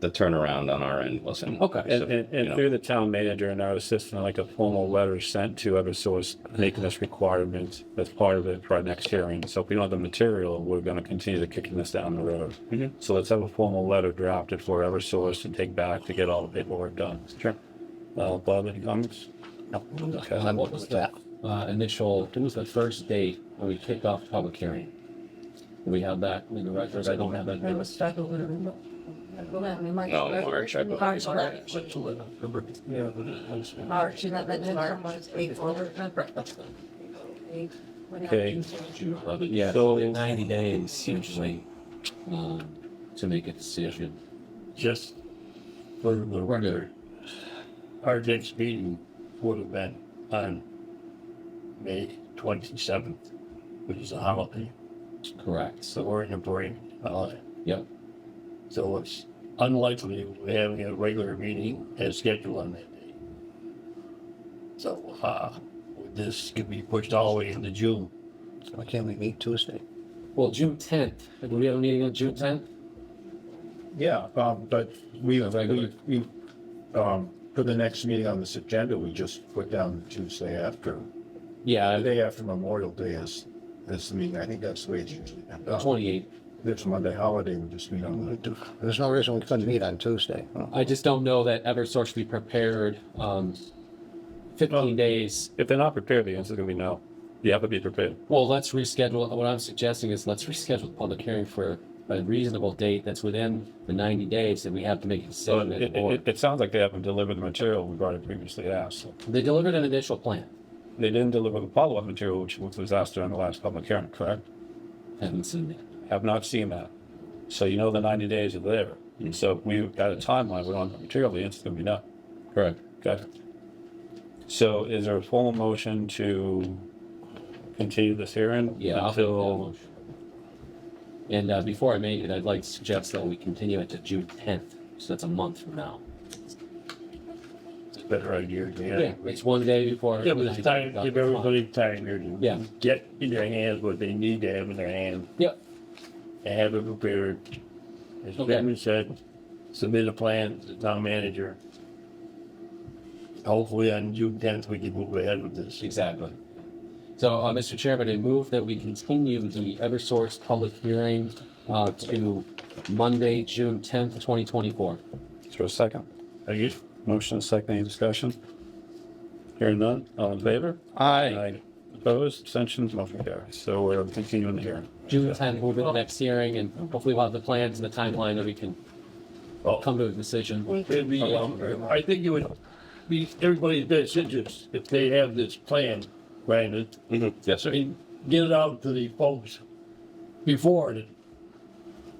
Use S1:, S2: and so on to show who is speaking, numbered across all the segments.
S1: the turnaround on our end wasn't.
S2: Okay, and,
S1: so,
S2: and,
S1: you
S2: and
S1: know.
S2: through the town manager and our assistant, like a formal letter sent to Eversource making this requirement as part of it for our next hearing. So if we don't have the material, we're gonna continue to kicking this down the road. So let's have a formal letter drafted for Eversource to take back to get all the paperwork done. Sure. Uh, Bob, any comments? No. Okay.
S3: Uh, what was that uh, initial? What was the first date when we kicked off public hearing? Do we have that in the records? I don't have that. in the records.
S1: No, Oh, March, I believe.
S4: March, March,
S3: Yeah.
S4: March, and then March, April.
S2: Okay.
S3: Yeah.
S2: So-
S3: So in ninety days usually um, to make a decision.
S5: just for the record, our next meeting would have been on May twenty-seventh, which is a holiday,
S3: Correct.
S5: so we're in a break uh, holiday.
S3: Yep.
S5: So it's unlikely we're having a regular meeting as scheduled on that day. So, uh, this could be pushed all the way into June.
S6: Why can't we meet Tuesday?
S3: Well, June tenth. Do we have a meeting on June tenth?
S7: Yeah, um, but we,
S3: Yeah, regular.
S7: we, we, um, for the next meeting on this agenda, we just put down Tuesday after, the
S3: Yeah,
S7: day after Memorial Day is, is the meeting. I think that's the way it's usually done.
S3: twenty eighth.
S7: There's Monday holiday, we just meet on the.
S6: There's no reason we couldn't meet on Tuesday.
S3: I just don't know that EverSource should be prepared. Um, fifteen days.
S2: If they're not prepared, the answer's gonna be no. You have to be prepared.
S3: Well, let's reschedule. What I'm suggesting is let's reschedule the public hearing for a reasonable date that's within the ninety days that we have to make a
S2: So
S3: decision.
S2: it,
S3: as a
S2: it,
S3: board.
S2: it- it sounds like they haven't delivered the material we've already previously asked. So
S3: They delivered an initial plan.
S2: They didn't deliver the follow-up material, which was asked during the last public hearing, correct?
S3: Haven't seen it.
S2: have not seen that. So you know the ninety days are there. And so if we've got a timeline, we don't have material, the answer's gonna be no.
S3: Correct.
S2: Okay. So is there a formal motion to continue this hearing?
S3: Yeah. I'll make that
S2: Until,
S3: motion. And uh, before I make it, I'd like to suggest that we continue it to June tenth, so that's a month from now.
S5: It's a better idea to have.
S3: Yeah, it's one day before.
S5: Yeah, but it's time, give everybody time here to
S3: Yeah.
S5: get in their hands what they need to have in their hands.
S3: Yep.
S5: and have it prepared. As
S3: Okay.
S5: Kevin said, submit a plan to the town manager. Hopefully on June tenth, we can move ahead with this.
S3: Exactly. So, uh, Mr. Chairman, I move that we continue the Eversource public hearing, uh, to Monday, June tenth, twenty twenty-four.
S2: is there a second?
S5: Are you,
S2: Motion, second, any discussion? Hearing none, all in favor?
S3: Aye.
S2: Aye. Opposed, abstentions, motion carries. So we're continuing the hearing.
S3: June tenth, move to the next hearing, and hopefully we'll have the plans and the timeline that we can
S5: Oh.
S3: come to a decision.
S5: it'd be, um, I think it would be everybody's best interest if they have this plan, Brandon.
S1: Yes,
S5: So
S1: sir.
S5: you get it out to the folks before the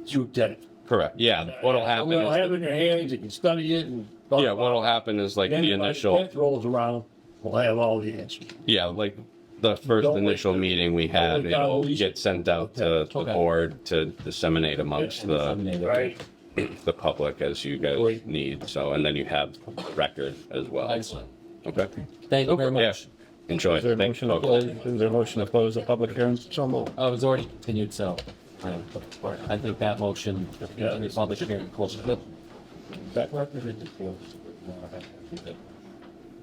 S5: June tenth.
S1: Correct. Yeah. What'll happen?
S5: We'll
S1: Is,
S5: have it in your hands, you can study it and.
S1: yeah. What'll happen is like
S5: Then
S1: the
S5: by
S1: initial.
S5: 10th Rolls around, we'll have all the answers.
S1: Yeah, like the first
S5: Don't wait
S1: initial
S5: till-
S1: meeting we had,
S5: wait till
S1: it'll
S5: at least-
S1: get sent out to the
S3: Okay.
S1: board to disseminate amongst
S3: and
S1: the
S3: disseminate it.
S5: Right.
S1: the public as you guys
S5: Wait.
S1: need. So, and then you have record as well.
S3: Excellent.
S1: Okay.
S3: Thank you very
S1: Yeah.
S3: much.
S1: Enjoy.
S2: Is there a
S1: Thanks,
S2: motion to
S1: folks.
S2: close, is there a motion to close the public hearing?
S6: So moved.
S3: I was Oh, already continued, so I I think that motion,
S5: Yeah.
S3: the public hearing closed.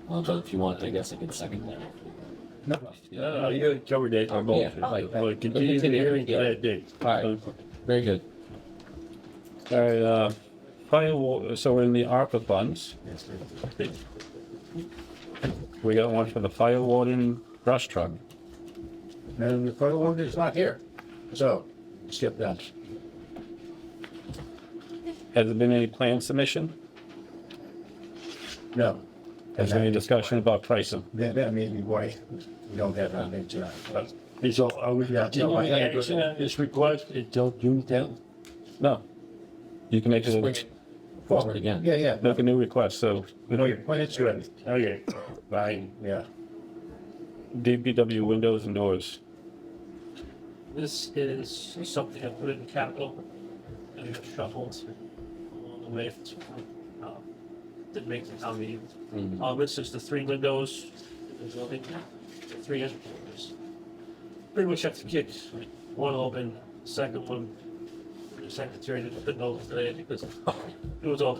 S3: Uh, But if you want, I guess I can second
S2: Uh,
S3: that.
S5: No, you covered that. I'm
S3: Oh, Yeah.
S5: Well, continue the hearing to that date.
S3: All right, very good.
S2: All right, uh, probably, we'll- so we're in the ARPA funds. We got one for the fire warden brush truck.
S7: And the federal one is not here, so skip that.
S2: Has there been any plan submission?
S7: No,
S2: Has there any discussion about pricing?
S7: that, that may be why we don't have anything tonight. But
S5: It's all, oh, are we
S7: Yeah,
S5: taking
S7: no, I- I-
S5: action on this request until June tenth?
S2: No. You can make
S3: Just bring
S2: a,
S3: it forward again.
S7: Yeah, yeah,
S2: make a new request, so
S7: no, your point is good,
S5: Okay, fine.
S7: yeah.
S2: DPW windows and doors.
S8: This is something I put in capital and it got shuffled along the way. Um, Didn't make the town meeting.
S5: Mm-hmm.
S8: Um, this is the three windows in the building, the three entrances. Pretty much have to kick one open, second one is
S5: secretary, just put notes today because it was all